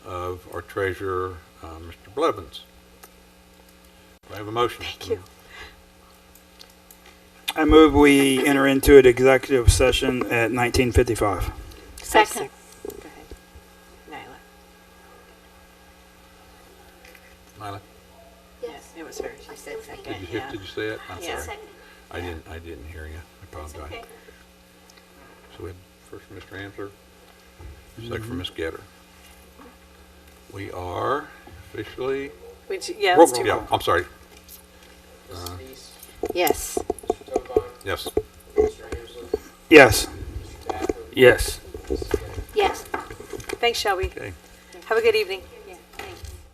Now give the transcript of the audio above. of our treasurer, uh, Mr. Blevins. Do I have a motion? Thank you. I move we enter into an executive session at 19:55. Second. Go ahead. Nyla, Nyla? Yes. It was her. She said did second, you, hear- yeah. did you say it? I'm Yeah. sorry. Oh, I didn't, I didn't hear you. I apologize. So we had first from Mr. Ansler, second from Ms. Getter. We are officially, Which, yeah, Roll let's call. do yeah, roll. I'm sorry, Mrs. Dees, Yes. Mr. Tovah, yes. Mr. Hamsel, Yes. Mr. Thacker, Yes. Mrs. Getter. Yes. Thanks, Shelby. Okay. Have a good evening.